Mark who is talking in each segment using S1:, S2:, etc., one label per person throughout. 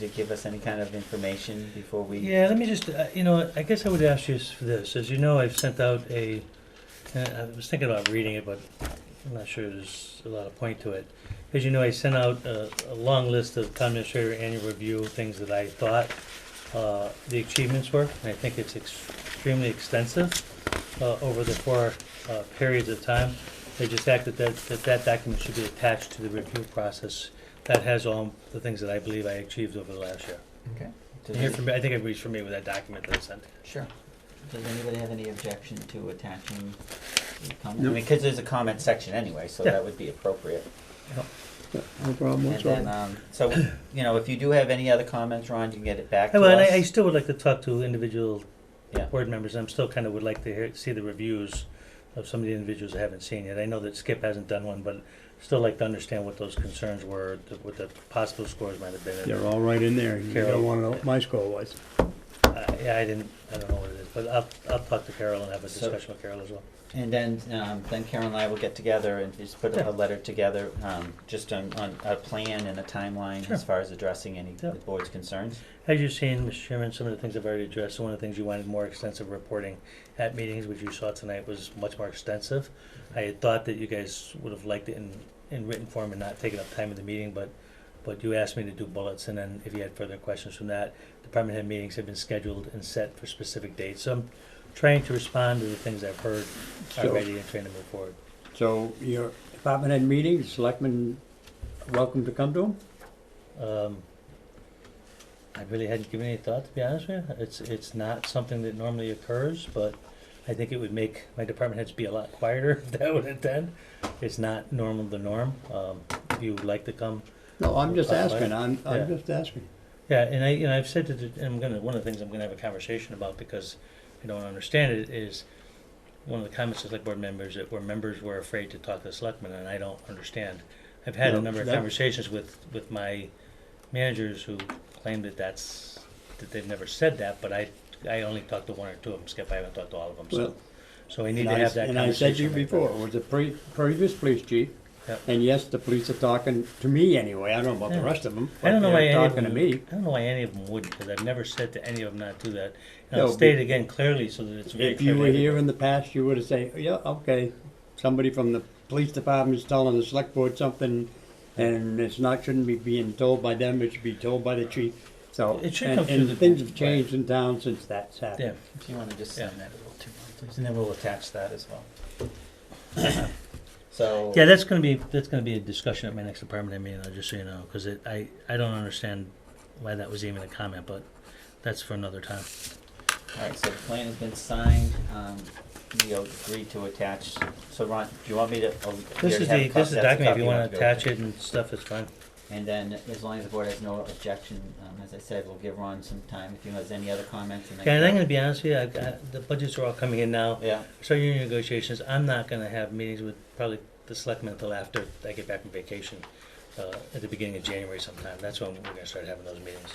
S1: to give us any kind of information before we?
S2: Yeah, let me just, uh, you know, I guess I would ask you s- for this. As you know, I've sent out a, uh, I was thinking about reading it, but I'm not sure there's a lot of point to it. As you know, I sent out a, a long list of town administrator annual review, things that I thought uh, the achievements were, and I think it's extremely extensive uh, over the four uh, periods of time. They just acted that, that that document should be attached to the review process. That has all the things that I believe I achieved over the last year.
S1: Okay.
S2: And Here from, I think everybody's familiar with that document that I sent.
S1: Sure. Does anybody have any objection to attaching the comment? I
S3: No.
S1: mean, because there's a comment section anyway, so
S2: Yeah.
S1: that would be appropriate.
S3: No problem
S1: And then,
S2: uh,
S3: whatsoever.
S1: um, so, you know, if you do have any other comments, Ron, you can get it back
S2: Hey,
S1: to
S2: Well, and I, I
S1: us.
S2: still would like to talk to individual
S1: Yeah.
S2: board members. I'm still kind of would like to hear, see the reviews of some of the individuals I haven't seen yet. I know that Skip hasn't done one, but still like to understand what those concerns were, th- what the possible scores might have been.
S3: They're all right in there. You
S2: Carol.
S3: don't want to know what my score was.
S2: Uh, yeah, I didn't, I don't know what it is, but I'll, I'll talk to Carol and have a
S1: So-
S2: discussion with Carol as well.
S1: And then, um, then Karen and I will get together and just put
S2: Yeah.
S1: a letter together, um, just on, on a plan and a timeline
S2: Sure.
S1: as far as addressing any of
S2: Yeah.
S1: the board's concerns.
S2: As you've seen, Mr. Chairman, some of the things I've already addressed, one of the things you wanted more extensive reporting at meetings, which you saw tonight was much more extensive. I had thought that you guys would have liked it in, in written form and not taken up time in the meeting, but, but you asked me to do bullets, and then if you had further questions from that, department head meetings have been scheduled and set for specific dates, so I'm trying to respond to the things I've heard
S3: Sure.
S2: already and trying to move forward.
S3: So your department head meetings, selectmen, welcome to come to them?
S2: Um, I really hadn't given any thought, to be honest with you. It's, it's not something that normally occurs, but I think it would make my department heads be a lot quieter if that would attend. It's not normal, the norm. Um, if you would like to come,
S3: No, I'm just
S2: That's
S3: asking, I'm, I'm
S2: Yeah.
S3: just asking.
S2: yeah, and I, you know, I've said to, the- and I'm gonna, one of the things I'm gonna have a conversation about because I don't understand it is one of the comments of select board members that where members were afraid to talk to selectmen and I don't understand. I've had a
S3: No,
S2: number of
S3: that-
S2: conversations with, with my managers who claim that that's, that they've never said that, but I, I only talked to one or two of them, Skip, I haven't talked to all of them, so.
S3: Well,
S2: So we need
S3: And
S2: to
S3: I,
S2: have that conversation.
S3: and I said to you
S2: like that.
S3: before, it was the pre, previous police chief.
S2: Yep.
S3: And yes, the police are talking to me anyway, I don't know about the
S2: Yeah.
S3: rest of them.
S2: I don't know why any of
S3: Talking
S2: them,
S3: to me.
S2: I don't know why any of them wouldn't, because I've never said to any of them not to do that. And
S3: No,
S2: I'll
S3: but-
S2: state it again clearly so that it's very
S3: If
S2: clear.
S3: you
S2: to
S3: were here
S2: everybody.
S3: in the past, you would have said, yeah, okay, somebody from the police department is telling the select board something, and it's not, shouldn't be being told by them, it should be told by the chief, so.
S2: It should
S3: and-
S2: come through the-
S3: And things have changed in town since that's
S2: Yeah,
S3: happened.
S1: If you wanna just
S2: Yeah.
S1: send that a little too, please, and then we'll attach that as well. So.
S2: yeah, that's gonna be, that's gonna be a discussion at my next department head meeting, I'll just so you know, because it, I, I don't understand why that was even a comment, but that's for another time.
S1: Alright, so the plan has been signed, um, we agreed to attach, so Ron, do you want me to? oh, you already
S2: This
S1: have
S2: is the,
S1: a copy-
S2: this
S1: that's
S2: is
S1: a
S2: document, if
S1: copy
S2: you wanna
S1: have to go
S2: attach
S1: through.
S2: it and stuff, it's fine.
S1: And then, as long as the board has no objection, um, as I said, we'll give Ron some time if he has any other comments and. then-
S2: Okay, and I'm gonna be honest with you, I, I, the budgets are all coming in now,
S1: Yeah,
S2: so union negotiations, I'm not gonna have meetings with probably the selectmen until after I get back from vacation, uh, at the beginning of January sometime, that's when we're gonna start having those meetings.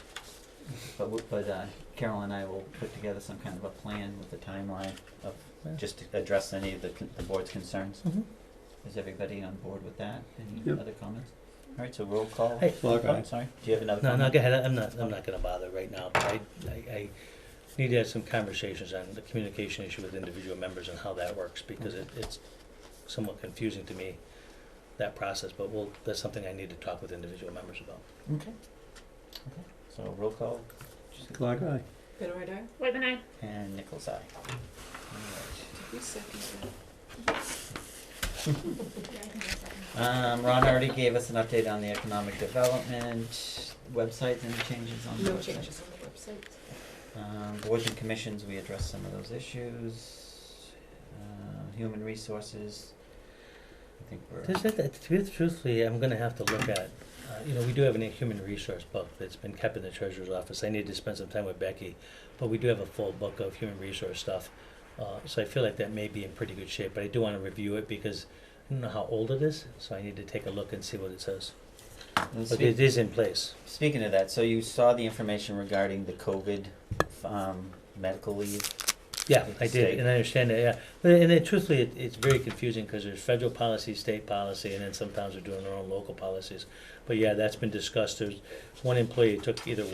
S1: but, we- but, uh, Carol and I will put together some kind of a plan with a timeline of,
S2: Yeah. Mm-hmm.
S1: just to address any of the, con- the board's concerns. Is everybody on board with that? Any
S3: Yep.
S1: other comments? Alright, so roll call.
S2: Hey.
S3: Roll
S1: Oh,
S3: call.
S1: Sorry, do you have another
S2: No,
S1: comment?
S2: no, go ahead, I'm not, I'm not gonna bother right now, but I, I, I need to have some conversations on the communication issue with individual members and how that works, because it, it's somewhat confusing to me, that process, but we'll, that's something I need to talk with individual members about.
S1: Okay. Okay. So roll call,
S3: Clock eye.
S4: Benoit Eye?
S5: Wait a minute.
S1: and Nichols eye.
S4: Who seconded that?
S1: Um, Ron already gave us an update on the economic development websites, any changes on the website?
S4: No changes on the website.
S1: Um, boards and commissions, we addressed some of those issues. Uh, human resources, I think we're.
S2: There's that, that- truth- truthfully, I'm gonna have to look at, uh, you know, we do have a human resource book that's been kept in the treasurer's office, I need to spend some time with Becky, but we do have a full book of human resource stuff, uh, so I feel like that may be in pretty good shape, but I do wanna review it because I don't know how old it is, so I need to take a look and see what it says,
S1: and
S2: but
S1: speak-
S2: it is in place.
S1: Speaking of that, so you saw the information regarding the COVID, um, medical leave.
S2: Yeah,
S1: with the
S2: I
S1: state.
S2: did, and I understand that, yeah. But, and it, truthfully, it, it's very confusing because there's federal policy, state policy, and then sometimes they're doing their own local policies. But yeah, that's been discussed. There's one employee took either one